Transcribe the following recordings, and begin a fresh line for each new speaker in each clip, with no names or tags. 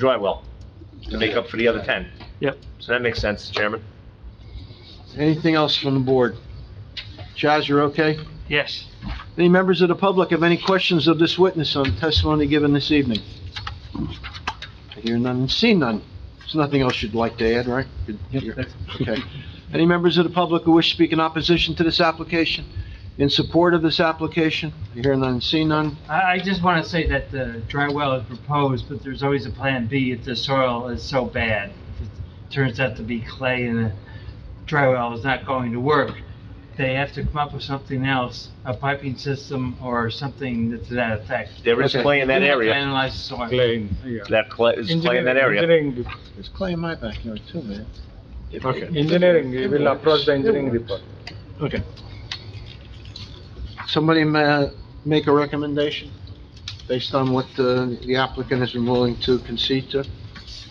dry well to make up for the other 10.
Yep.
So that makes sense, Chairman.
Anything else from the board? Chaz, you're okay?
Yes.
Any members of the public have any questions of this witness on testimony given this evening? I hear none and see none. There's nothing else you'd like to add, right? Good- you're- Okay. Any members of the public who wish to speak in opposition to this application? In support of this application? I hear none and see none.
I, I just want to say that the dry well is proposed, but there's always a plan B if the soil is so bad. If it turns out to be clay and the dry well is not going to work, they have to come up with something else, a piping system or something to that effect.
There is
Okay.
clay in that
You have to
area.
Analyze the soil.
Lane, yeah.
That clay, is clay in that area.
Engineering,
There's clay in my backyard too, man.
dep- engineering, we will approach the engineering report.
Okay. Somebody ma- make a recommendation based on what uh, the applicant has been willing to concede to?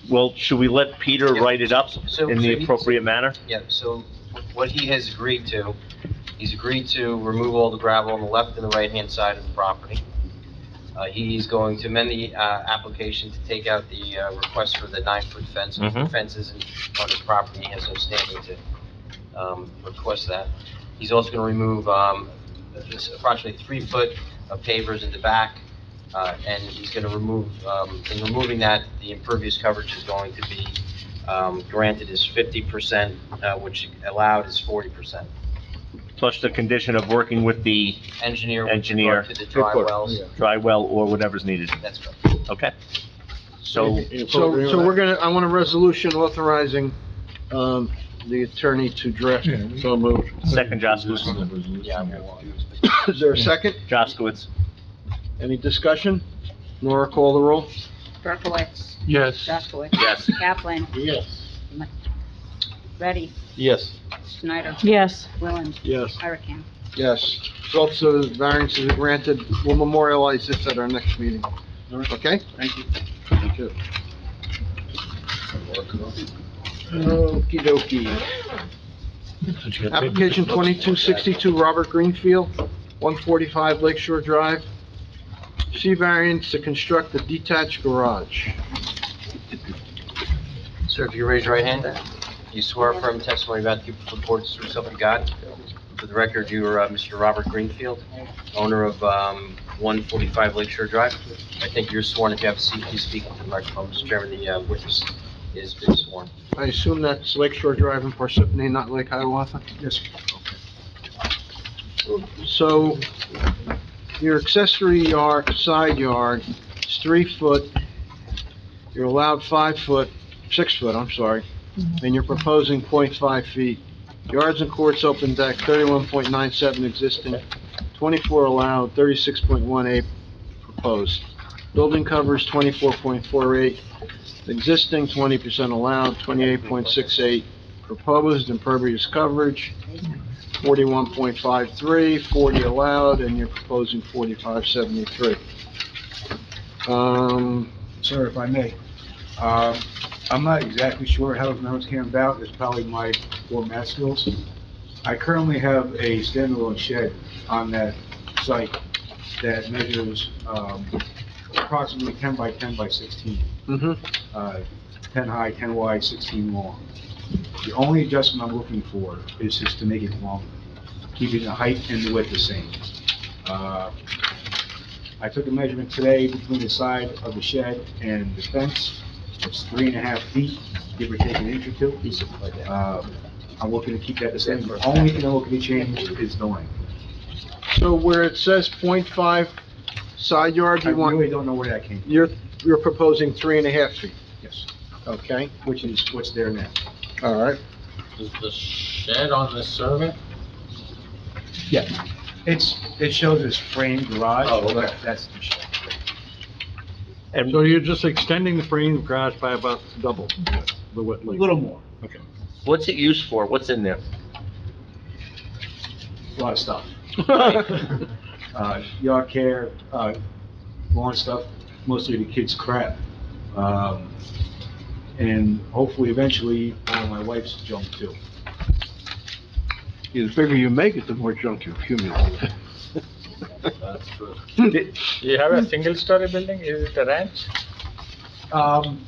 Well, should we let Peter
Yeah.
write it up
So-
in
so
the
he-
appropriate manner?
Yeah, so what he has agreed to, he's agreed to remove all the gravel on the left and the right-hand side of the property. Uh, he's going to amend the, uh, application to take out the, uh, request for the nine-foot fence, which
Mhm.
fences in- on his property, he has no standing to, um, request that. He's also gonna remove, um, this approximately three foot of pavers in the back, uh, and he's gonna remove, um, in removing that, the impervious coverage is going to be, um, granted is fifty percent, uh, which allowed is forty percent.
Plus the condition of working with the
Engineer with
Engineer.
regard to the dry wells,
dry well or whatever's needed,
that's correct.
okay? So,
So, so we're gonna, I want a resolution authorizing, um, the attorney to draft.
So moved.
second Jaskowitz,
Yeah, well,
Is there a second?
Jaskowitz,
Any discussion? Nora, call the roll.
Berkowitz,
Yes.
Jaskowitz,
yes.
Kaplan,
Yes.
Ready,
Yes.
Schneider,
Yes.
Willand,
Yes.
Hurricane.
Yes. Results of the variances are granted. We'll memorialize this at our next meeting. Okay? Thank you. Okey dokey. Application 2262, Robert Greenfield, 145 Lake Shore Drive. C variance to construct a detached garage.
Sir, if you raise your right hand, you swear affirm testimony about to give before the court is true self you got. For the record, you are uh, Mr. Robert Greenfield, owner of um, 145 Lakeshore Drive. I think you're sworn. If you have a seat, please speak into the microphone. Mr. Chairman, the uh, witness is being sworn.
I assume that's Lake Shore Drive in Parsippany, not Lake Hiawatha? Yes. So your accessory yard, side yard is three foot, you're allowed five foot, six foot, I'm sorry, and you're proposing 0.5 feet. Yards and courts open deck, thirty-one point nine seven existing, twenty-four allowed, thirty-six point one eight proposed. Building covers twenty-four point four eight, Existing, twenty percent allowed, twenty-eight point six eight proposed, impervious coverage, 41.53, 40 allowed, and you're proposing forty-five seventy-three. Um,
Sir, if I may, um, I'm not exactly sure how those numbers came about, it's probably my poor math skills. I currently have a standalone shed on that site that measures um, approximately 10 by 10 by 16,
mhm.
uh, 10 high, 10 wide, 16 long. The only adjustment I'm looking for is just to make it longer, keeping the height and the width the same. Uh, I took a measurement today between the side of the shed and the fence. It's three and a half feet, give or take an inch or two. Uh, I'm looking to keep that the same. The only thing I'm looking to change is the length.
so where it says 0.5 side yard,
I
you want,
really don't know where that came from,
you're, you're proposing three and a half feet,
yes,
okay?
which is what's there now.
All right.
Is the shed on the survey?
It's, it shows this framed garage, but Oh, that's the shed.
And
So you're just extending the frame garage by about double the width.
A little more,
what's it used for? What's in there?
a lot of stuff. uh, yard care, uh, lawn stuff, mostly the kids' crap. Um, and hopefully eventually, uh, my wife's junk too.
The bigger you make it, the more junk you accumulate.
You have a single-story building, is it a ranch?
Um,